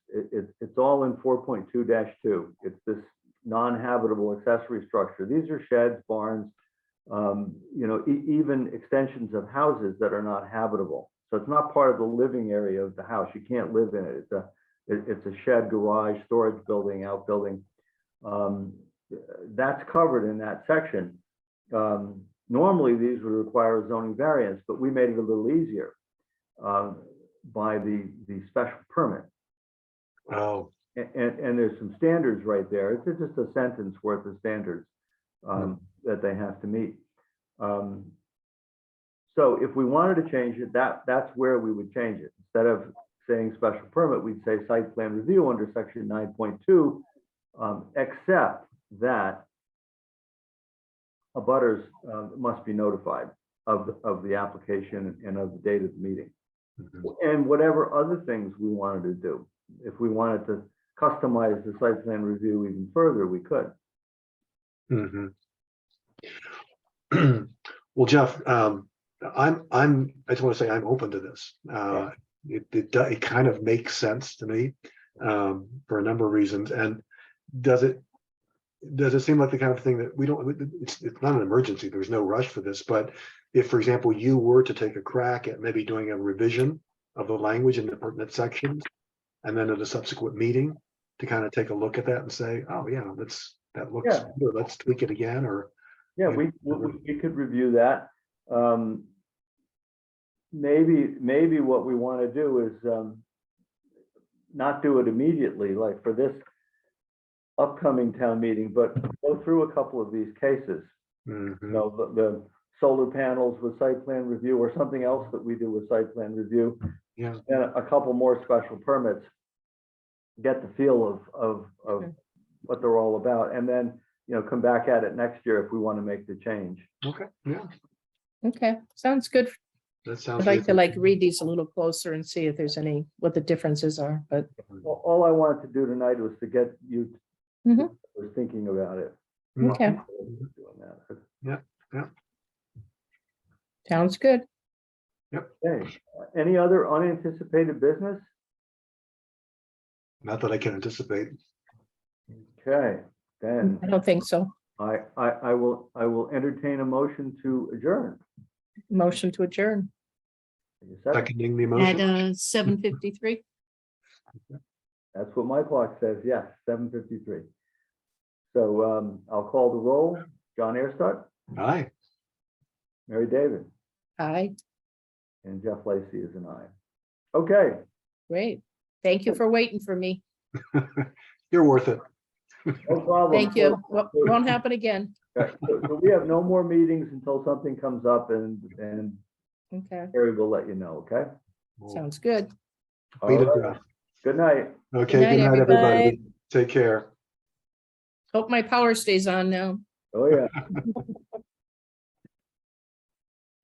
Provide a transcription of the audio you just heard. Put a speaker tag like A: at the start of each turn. A: it, it- it's all in four point two two. It's this non-habitable accessory structure. These are sheds, barns, um, you know, e- even extensions of houses that are not habitable. So it's not part of the living area of the house. You can't live in it. It's a, it- it's a shed, garage, storage building, outbuilding. Um, that's covered in that section. Um, normally, these would require a zoning variance, but we made it a little easier um, by the, the special permit.
B: Oh,
A: A- And, and there's some standards right there. It's just a sentence worth of standards um, that they have to meet. Um, So if we wanted to change it, that, that's where we would change it. Instead of saying special permit, we'd say site plan review under section nine point two, um, except that abutters um, must be notified of, the- of the application and of the date of the meeting.
B: mhm.
A: And whatever other things we wanted to do, if we wanted to customize the site plan review even further, we could.
B: Mhm. Mm-hmm. Well, Jeff, um, I'm, I'm, I just want to say I'm open to this. Uh, It, it, do- it kind of makes sense to me um, for a number of reasons. And does it, does it seem like the kind of thing that we don't, it's, it's not an emergency. There's no rush for this. But if, for example, you were to take a crack at maybe doing a revision of the language in the pertinent sections and then at a subsequent meeting to kind of take a look at that and say, oh, yeah, let's, that looks,
A: Yeah.
B: good, let's tweak it again or
A: Yeah, we, we, we- we could review that. Um, Maybe, maybe what we want to do is um, not do it immediately, like for this upcoming town meeting, but go through a couple of these cases. you
B: Mhm.
A: know, the, the solar panels with site plan review or something else that we do with site plan review.
B: Yeah.
A: And a couple more special permits. Get the feel of, of, of
C: Okay.
A: what they're all about and then, you know, come back at it next year if we want to make the change.
B: Okay, yeah,
C: Okay, sounds good.
B: that sounds.
C: I'd like to
B: reasonable.
C: like read these a little closer and see if there's any, what the differences are, but
A: A- All I wanted to do tonight was to get you
C: Mhm.
A: was thinking about it.
B: Mm.
C: okay,
A: Doing that.
C: sounds good.
A: Okay, any other unanticipated business?
B: Not that I can anticipate.
A: Okay, then
C: I don't think so.
A: I, I, I will, I will entertain a motion to adjourn.
C: Motion to adjourn.
A: Is that-
B: Seconding the
D: At
B: motion.
D: uh, 7:53.
A: That's what my clock says, yes, seven fifty-three. So um, I'll call the roll. John Airstart,
B: Aye.
A: Mary David,
C: Aye,
A: and Jeff Lacy is an aye. Okay,
C: great. Thank you for waiting for me.
B: You're worth it.
A: no problem.
C: Thank you. Wo- Won't happen again.
A: Okay, So so we have no more meetings until something comes up and, and
C: Okay,
A: Harry will let you know, okay?
C: sounds good.
A: All
B: Beat it
A: right,
B: up.
A: Good night.
B: Okay,
C: night,
B: good night, everybody.
C: everybody.
B: Take care.
C: Hope my power stays on now.
A: Oh, yeah.